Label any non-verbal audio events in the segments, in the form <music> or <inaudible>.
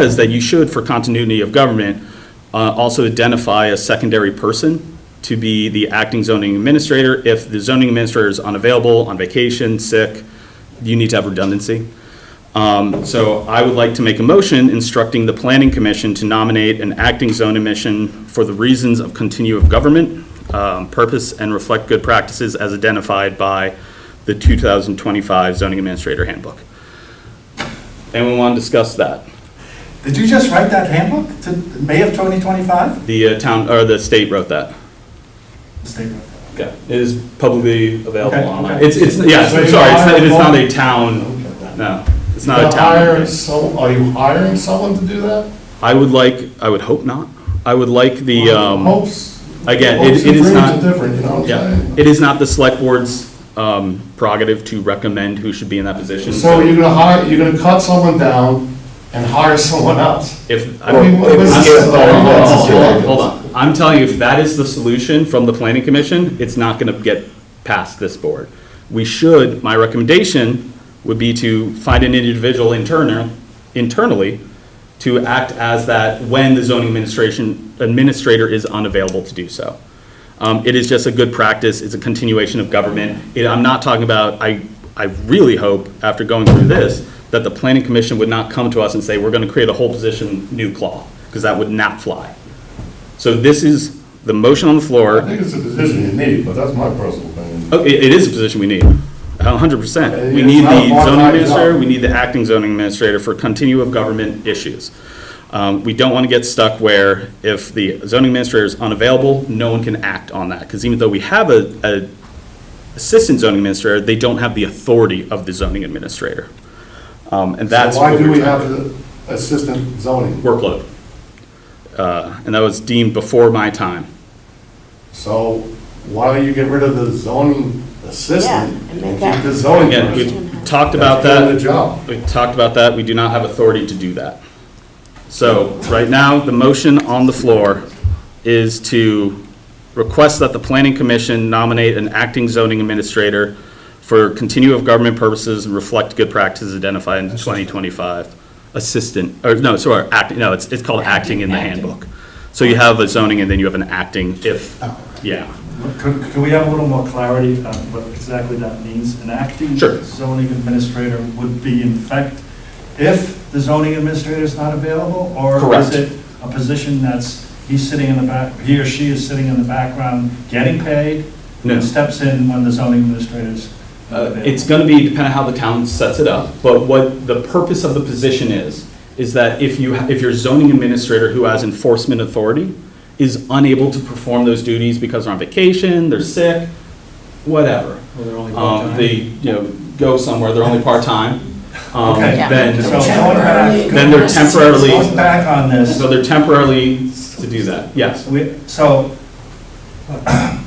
says that you should, for continuity of government, uh, also identify a secondary person to be the acting zoning administrator. If the zoning administrator is unavailable, on vacation, sick, you need to have redundancy. Um, So I would like to make a motion instructing the planning commission to nominate an acting zone admission for the reasons of continue of government, um, purpose, and reflect good practices as identified by the 2025 zoning administrator handbook. Anyone want to discuss that? Did you just write that handbook to May of 2025? The uh, town, or the state wrote that. The state wrote that. Yeah, it is publicly Okay, available online. okay. It's, it's, yeah, So sorry, you it's not, it is not hire a town, Okay. no, it's not You're a town. hiring some- Are you hiring someone to do that? I would like, I would hope not. I would like the, um. Hopes. again, it- hopes it and is dreams not- are Different, you know what Yeah, I'm it is not the select board's um, prerogative to recommend who should be in that position. saying? So you're gonna hire, you're gonna cut someone down and hire <laughs> someone else? If, I mean, I'm- what was this? hold on, hold Oh, on, hold on. I'm telling you, if that is the solution from the planning commission, it's not gonna get past this board. We should, my recommendation would be to find an individual internal, internally to act as that when the zoning administration, administrator is unavailable to do so. Um, It is just a good practice, it's a continuation of government. It- I'm not talking about, I, I really hope, after going through this, that the planning commission would not come to us and say, we're gonna create a whole position, new claw, because that would not fly. So this is the motion on the I floor. think it's a decision you need, but that's my personal opinion. Oh, It, it is a position we need, a hundred percent. We It's need not a the zoning part-time administrator, job. we need the acting zoning administrator for continuum of government issues. Um, we don't want to get stuck where if the zoning administrator is unavailable, no one can act on that. Because even though we have a, a assistant zoning administrator, they don't have the authority of the zoning administrator. Um, and that's. So why what do we're we trying- have the assistant zoning? Workload. Uh, and that was deemed before my time. So why don't you get rid of the zoning assistant Yeah, and and make keep that- the zoning Again, we person? talked about That's that. doing the job. We talked about that, we do not have authority to do that. So, right now, the motion on the floor is to request that the planning commission nominate an acting zoning administrator for continue of government purposes and reflect good practices identified in 2025. Assistant, or no, sorry, acting, no, it's, it's called acting in the handbook. So you have a zoning and then you have an acting if, Oh, yeah. Could, could we have a little more clarity on what exactly that means? An acting Sure. zoning administrator would be in fact, if the zoning administrator is not available? Or Correct. is it a position that's, he's sitting in the back, he or she is sitting in the background getting paid? No. And steps in when the zoning administrator's not Uh, available? It's going to be, depending on how the town sets it up, but what the purpose of the position is, is that if you, if your zoning administrator who has enforcement authority is unable to perform those duties because they're on vacation, they're sick, whatever. Um, They, you know, go somewhere, they're only part-time, um, Okay. Yeah. then, So going back- then they're temporarily, Going back on this. so they're temporarily to do that, yes. We, so, uh,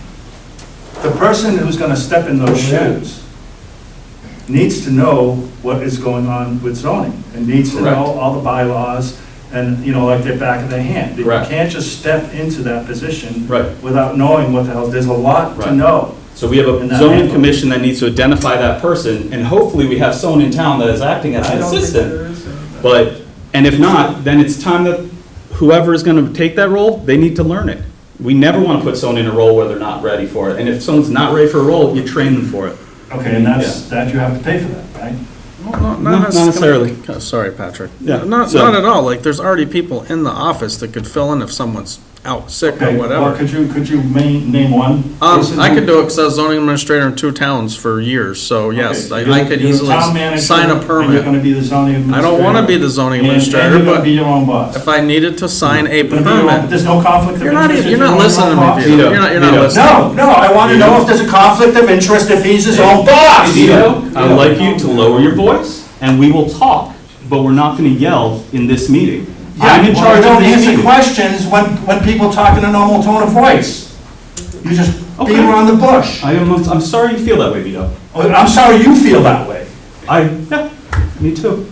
<clears throat> the person who's gonna step in those shoes needs to know what is going on with zoning, and needs to Correct. know all the bylaws, and, you know, like they're back of their hand. You Correct. can't just step into that position Right. without knowing what the hell, there's a lot Right. to know. So we have a And that zoning handbook. commission that needs to identify that person, and hopefully we have someone in town that is acting as an assistant. But, and if not, then it's time that whoever is gonna take that role, they need to learn it. We never wanna put someone in a role where they're not ready for it, and if someone's not ready for a role, you train them for it. Okay, and that's, that you have to pay for that, right? Well, No, not necess- necessarily. Oh, Sorry, Patrick. Yeah, No, Not, so- not at all, like, there's already people in the office that could fill in if someone's out sick Okay, or well, whatever. Could you, could you ma- name one? person Um, I who- could do it, because I was zoning administrator in two towns for years, so yes, I Okay, I you're- could you're a easily town manager, sign a and you're gonna permit. be the zoning I administrator. don't want to be the zoning And- administrator, And you're gonna but be your own boss. if I needed to sign a You're gonna be your own- permit, There's no conflict of you're not, interest. if even- you're not your own listening to boss? me, Vito. You're not, you're not Vito. listening. No, no, I want to know if there's a conflict of interest if he's his own boss. Vito, I would like you to lower your voice, and we will talk, but we're not gonna yell in this meeting. I'm in Or charge of Don't this answer meeting. questions when, when people talk in a normal tone of voice. You just Okay. beat around the bush. Oh, I am, I'm sorry you feel that way, Vito. I'm sorry you feel that way. I, yeah, me too.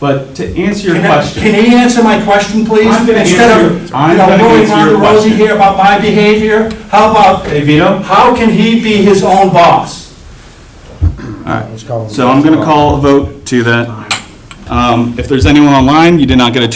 But to answer your Can I- question, Can he answer my question, please? I'm gonna Instead answer- of, I'm you know, gonna going answer on your the rosy question. here about my behavior, how about, hey Vito, how can he be his own boss? so I'm gonna call a vote to that. Um, If there's anyone online, you did not get a